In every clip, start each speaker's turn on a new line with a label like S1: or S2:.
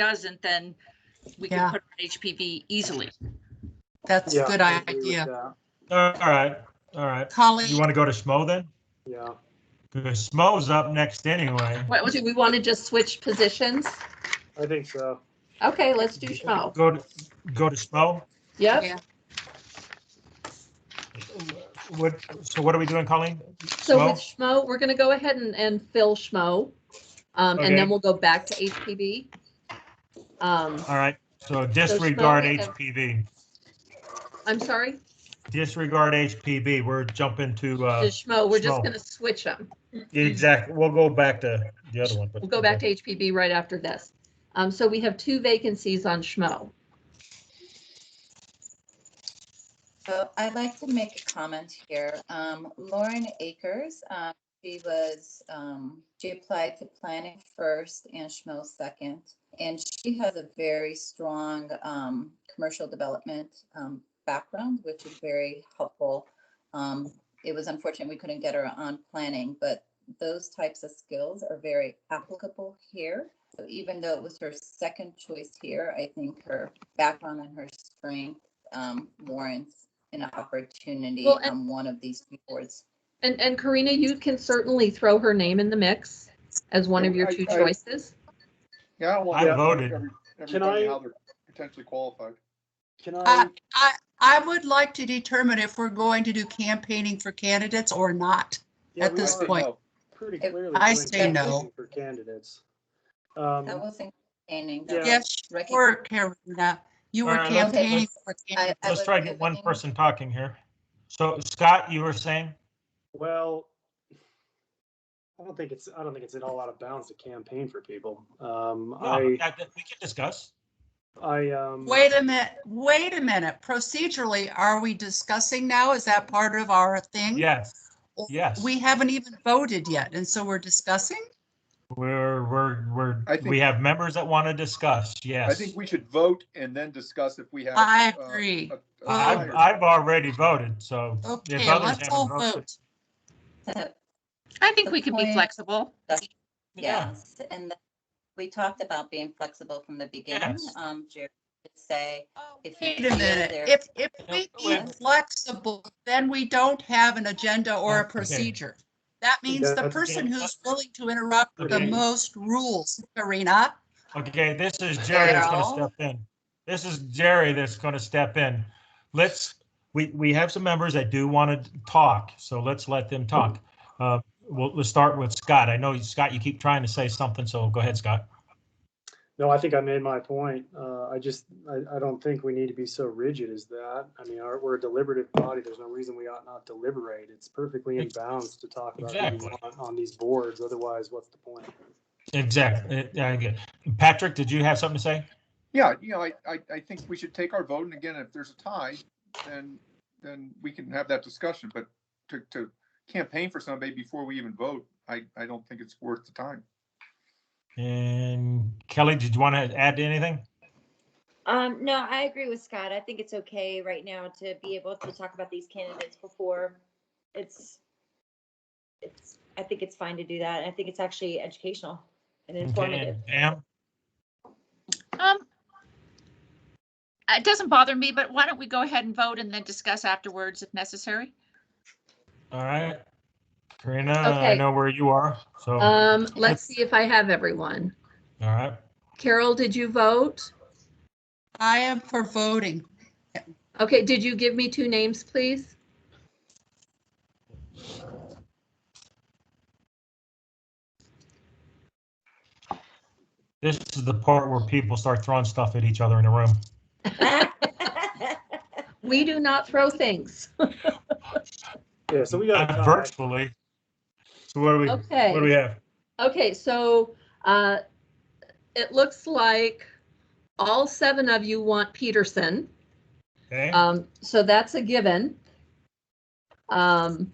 S1: doesn't, then we can
S2: Yeah.
S1: put it on HPV easily.
S2: That's a
S3: Yeah,
S2: good
S3: I agree with
S2: idea.
S3: that.
S4: All right, all right. You
S2: Colleen,
S4: want to go to Smo then?
S3: Yeah,
S4: Because Smo's up next anyway.
S5: What, do we want to just switch positions?
S3: I think so.
S5: Okay, let's do Schmo.
S4: Go to, go to Smo?
S2: Yeah.
S5: Yep.
S4: What, so what are we doing, Colleen?
S5: So with
S4: Schmo?
S5: Schmo, we're going to go ahead and, and fill Schmo. Um, and
S4: Okay.
S5: then we'll go back to HPV. Um,
S4: All right, so disregard
S5: Schmo, uh,
S4: HPV,
S5: I'm sorry,
S4: disregard HPV. We're jumping to,
S5: to
S4: uh,
S5: Schmo, we're just
S4: Schmo.
S5: going to switch them.
S4: exactly, we'll go back to the other one.
S5: We'll go back to HPV right after this. Um, so we have two vacancies on Schmo.
S6: So I'd like to make a comment here. Um, Lauren Akers, uh, she was, um, she applied to planning first and Schmo second. And she has a very strong, um, commercial development, um, background, which is very helpful. Um, it was unfortunate we couldn't get her on planning, but those types of skills are very applicable here. So even though it was her second choice here, I think her background and her strength um, warrants an opportunity
S5: Well, and-
S6: on one of these few boards.
S5: And, and Karina, you can certainly throw her name in the mix as one of your two
S7: I- I-
S5: choices.
S7: Yeah, well.
S4: I voted.
S3: Can
S7: Everybody,
S3: I-
S7: how they're potentially qualified.
S3: Can
S2: Uh,
S3: I,
S2: I, I would like to determine if we're going to do campaigning for candidates or not.
S3: yeah,
S2: at
S3: we
S2: this
S3: are
S2: point-
S3: pretty
S6: I-
S3: clearly
S2: I
S3: doing
S2: say
S3: campaign
S2: no.
S3: For candidates. Um,
S6: That was entertaining.
S3: Yeah.
S2: Yes, you were, Karina. You were
S4: All right, let's-
S2: campaigning for candidates.
S4: Let's try to get one person talking here. So Scott, you were saying?
S3: well, I don't think it's, I don't think it's at all out of bounds to campaign for people. Um,
S4: No,
S3: I,
S4: Oh, that- that- we can discuss.
S3: I, um.
S2: Wait a minute, wait a minute. Procedurally, are we discussing now? Is that part of our thing?
S4: Yes, yes.
S2: We haven't even voted yet, and so we're discussing?
S4: We're, we're, we're,
S7: I think-
S4: we have members that want to discuss, yes.
S7: I think we should vote and then discuss if we have.
S2: I
S7: uh,
S2: agree.
S7: a- a
S4: I've,
S7: tie.
S4: I've already voted, so. if
S2: Okay,
S4: others
S2: let's
S4: haven't
S2: all
S4: voted-
S2: vote.
S1: I think we can be
S6: Okay.
S1: flexible.
S6: Yes, and th- we talked about being flexible from the beginning.
S4: Yes.
S6: Um, Jerry did say,
S2: Oh,
S6: If
S2: Wait
S6: you
S2: a
S6: feel
S2: minute,
S6: there-
S2: if, if we
S4: Yeah.
S2: be flexible, then we don't have an agenda or a
S4: Okay.
S2: procedure. That means the
S3: That's-
S2: person who's willing to interrupt the
S4: Okay.
S2: most rules, Karina.
S4: Okay, this is Jerry that's gonna step
S6: Daryl?
S4: in. This is Jerry that's gonna step in. Let's, we, we have some members that do want to talk, so let's let them talk. Uh, We'll, let's start with Scott. I know, Scott, you keep trying to say something, so go ahead, Scott.
S3: No, I think I made my point. Uh, I just, I, I don't think we need to be so rigid as that. I mean, our, we're a deliberative body. There's no reason we ought not deliberate. It's perfectly in bounds to talk about who we
S4: Exactly.
S3: want on these boards. Otherwise, what's the point?
S4: Exactly. eh, Yeah, I get it. Patrick, did you have something to say?
S7: Yeah, you know, I, I, I think we should take our vote and again, if there's a tie, then, then we can have that discussion, but to, to campaign for somebody before we even vote, I, I don't think it's worth the time.
S4: And Kelly, did you want to add anything?
S8: Um, no, I agree with Scott. I think it's okay right now to be able to talk about these candidates before it's, it's, I think it's fine to do that. I think it's actually educational and informative.
S4: Am?
S1: Um, it doesn't bother me, but why don't we go ahead and vote and then discuss afterwards if necessary?
S4: All right. Karina, I
S5: Okay.
S4: know where you are, so, all
S5: Um, let's see if I have everyone.
S4: right.
S5: Carol, did you vote?
S2: I am for voting.
S5: Okay, did you give me two names, please?
S4: This is the part where people start throwing stuff at each other in the room.
S5: We do not throw things.
S3: Yeah, so we got. a
S4: Uh,
S3: tie.
S4: Virtually. So what do we, what
S5: Okay.
S4: do we have?
S5: Okay, so uh, it looks like all seven of you want Peterson.
S4: Okay,
S5: Um, so that's a given. Um,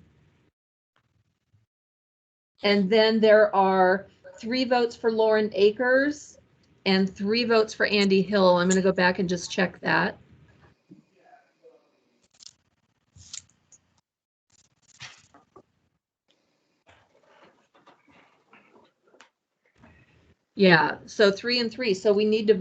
S5: and then there are three votes for Lauren Akers and three votes for Andy Hill. I'm going to go back and just check that. Yeah, so three and three. So we need to